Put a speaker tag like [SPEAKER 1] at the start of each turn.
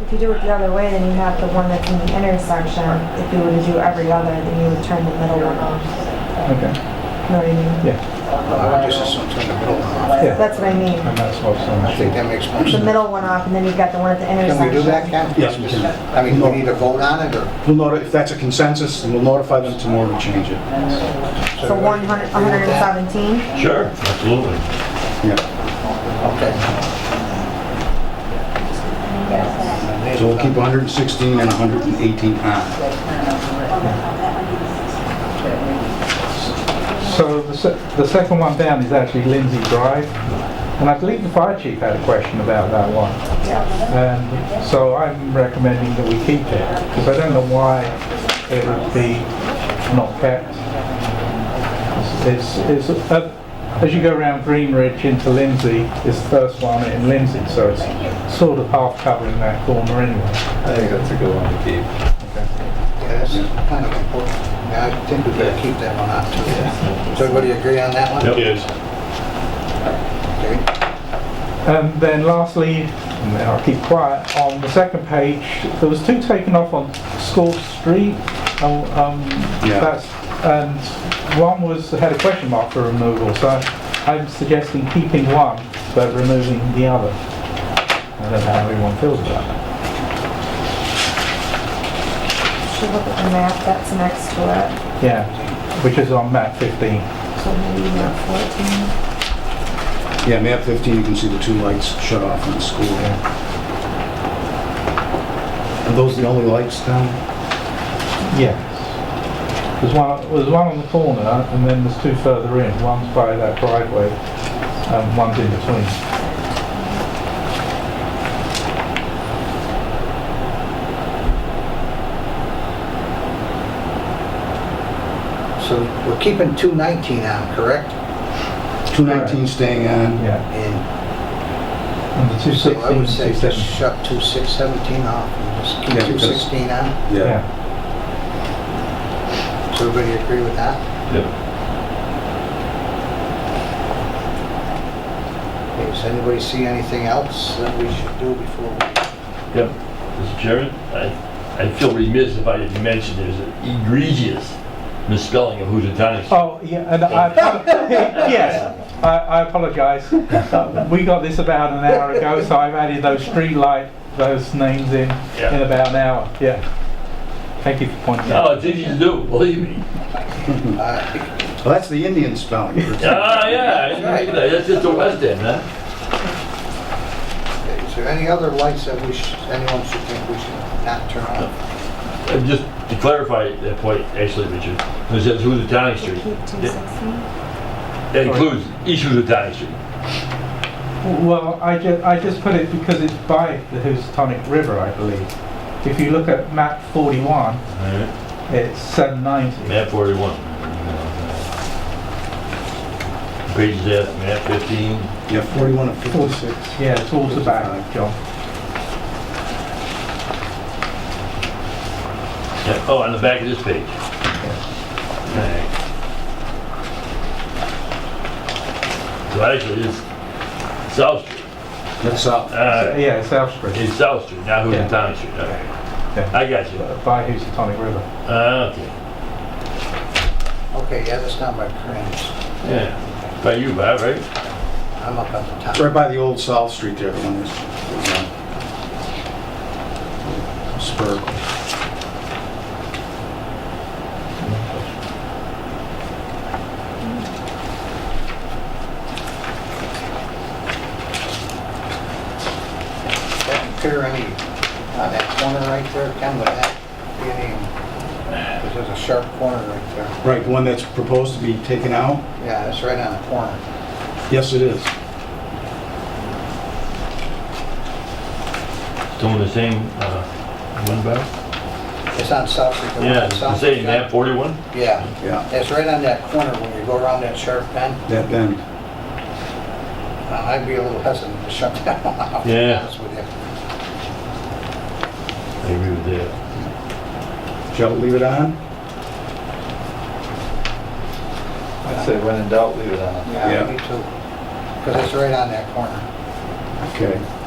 [SPEAKER 1] If you do it the other way, then you have the one that's in the intersection. If you were to do every other, then you would turn the middle one off.
[SPEAKER 2] Okay,
[SPEAKER 1] You know what I mean?
[SPEAKER 3] I would just assume turn the middle one off.
[SPEAKER 2] yeah.
[SPEAKER 1] That's what I mean.
[SPEAKER 2] And that's what's on
[SPEAKER 3] I
[SPEAKER 2] the
[SPEAKER 3] think
[SPEAKER 2] sheet.
[SPEAKER 3] that makes more
[SPEAKER 1] The
[SPEAKER 3] sense.
[SPEAKER 1] middle one off, and then you've got the one at the intersection.
[SPEAKER 3] Can we do that, Ken?
[SPEAKER 4] Yes, we can.
[SPEAKER 3] I mean, we need to vote on it, or?
[SPEAKER 4] We'll notify, if that's a consensus, we'll notify them tomorrow to change it.
[SPEAKER 1] So 100, 117?
[SPEAKER 5] Sure, absolutely.
[SPEAKER 4] Yeah,
[SPEAKER 3] Okay.
[SPEAKER 4] so we'll keep 116 and 118 on.
[SPEAKER 2] So the, se- the second one down is actually Lindsay Drive, and I believe the fire chief had a question about that one. And so I'm recommending that we keep it, because I don't know why it would be not kept. It's, it's, uh, as you go around Green Ridge into Lindsay, it's the first one in Lindsay, so it's sort of half covering that corner anyway.
[SPEAKER 6] I think that's a good one to keep.
[SPEAKER 3] Yeah, that's kind of important. Yeah, I think we better keep that one on too. Does everybody agree on that one?
[SPEAKER 5] It is.
[SPEAKER 3] Okay.
[SPEAKER 2] And Um, then lastly, and then I'll keep quiet, on the second page, there was two taken off on Scorch Street. Oh, um,
[SPEAKER 4] Yeah.
[SPEAKER 2] that's, and one was, had a question mark for removal, so I'm suggesting keeping one, but removing the other. I don't know how everyone feels about that.
[SPEAKER 1] Should look at the map that's next to it.
[SPEAKER 2] Yeah, which is on map 15.
[SPEAKER 1] So maybe map 14.
[SPEAKER 4] Yeah, map 15, you can see the two lights shut off in the school. Are those the only lights down?
[SPEAKER 2] Yes. There's one, there's one on the corner, and then there's two further in. One's by that driveway, and one's in between.
[SPEAKER 3] So we're keeping 219 on, correct?
[SPEAKER 4] 219 staying on.
[SPEAKER 2] Yeah,
[SPEAKER 3] And
[SPEAKER 2] and the two
[SPEAKER 3] so I
[SPEAKER 2] sixteen,
[SPEAKER 3] would say
[SPEAKER 2] two
[SPEAKER 3] just
[SPEAKER 2] seventeen.
[SPEAKER 3] shut 2617 off and just keep
[SPEAKER 4] Yeah, because-
[SPEAKER 3] 216 on.
[SPEAKER 2] Yeah,
[SPEAKER 3] Does everybody agree with that?
[SPEAKER 5] Yep.
[SPEAKER 3] Okay, Does anybody see anything else that we should do before? we-
[SPEAKER 5] Yep. Mr. Chairman, I, I feel remiss if I didn't mention there's an egregious misspelling of Housatonic. Street.
[SPEAKER 2] oh, yeah, and I, apo- yes, I, I apologize. Uh, We got this about an hour ago, so I've added those street light, those names in,
[SPEAKER 5] Yeah.
[SPEAKER 2] in about an hour, yeah. Thank you for pointing out.
[SPEAKER 5] No, Oh, it's easy to do, believe me.
[SPEAKER 3] Uh,
[SPEAKER 4] Well, that's the Indian spelling.
[SPEAKER 5] Ah, yeah, I didn't think of that. that's just the west end, huh?
[SPEAKER 3] okay, Is there any other lights that we should, anyone should think we should not turn on?
[SPEAKER 5] Uh, Just to clarify that point, actually, Richard, when it says Housatonic
[SPEAKER 1] Should we
[SPEAKER 5] Street,
[SPEAKER 1] keep 216?
[SPEAKER 5] that includes East Housatonic Street.
[SPEAKER 2] Well, I ju, I just put it because it's by the Housatonic River, I believe. If you look at map forty-one, it's seven ninety.
[SPEAKER 5] Map 41. Page F, map 15.
[SPEAKER 4] Yeah, 41 of 56.
[SPEAKER 2] Forty-six, yeah, it's all about,
[SPEAKER 4] 55.
[SPEAKER 2] John.
[SPEAKER 5] Yeah, Oh, on the back of this page. Alright. So actually, it's South Street.
[SPEAKER 4] That's up.
[SPEAKER 5] Uh,
[SPEAKER 2] Yeah, it's Elstree.
[SPEAKER 5] It's South Street, not
[SPEAKER 2] Yeah.
[SPEAKER 5] Housatonic Street. Alright.
[SPEAKER 2] Yeah.
[SPEAKER 5] I got you.
[SPEAKER 2] by Housatonic River.
[SPEAKER 5] Uh, Okay.
[SPEAKER 3] Okay, yeah, that's not my cringe.
[SPEAKER 5] Yeah. By you, Bob, right?
[SPEAKER 3] I'm up at the top.
[SPEAKER 4] It's right by the old South Street there, the one that's... uh, Spur.
[SPEAKER 3] Doesn't appear any, on uh, that corner right there, Ken, would that be any, there's a sharp corner right there.
[SPEAKER 4] Right, the one that's proposed to be taken out?
[SPEAKER 3] Yeah, that's right on the corner.
[SPEAKER 4] Yes, it is.
[SPEAKER 5] Doing the same, uh, one, Bob?
[SPEAKER 3] It's on South Street. the one on
[SPEAKER 5] Yeah, the
[SPEAKER 3] South
[SPEAKER 5] same
[SPEAKER 3] Street.
[SPEAKER 5] map 41?
[SPEAKER 3] Yeah,
[SPEAKER 4] Yeah,
[SPEAKER 3] that's right on that corner when you go around that sharp bend.
[SPEAKER 4] that bend.
[SPEAKER 3] Uh, I'd be a little hesitant to shut that one off, to be
[SPEAKER 5] Yeah.
[SPEAKER 3] honest with you.
[SPEAKER 5] I agree with that.
[SPEAKER 4] Shall we leave it on?
[SPEAKER 6] I'd say when in doubt, leave it on.
[SPEAKER 4] Yeah.
[SPEAKER 3] Yeah, me too. Because it's right on that corner.
[SPEAKER 4] Okay.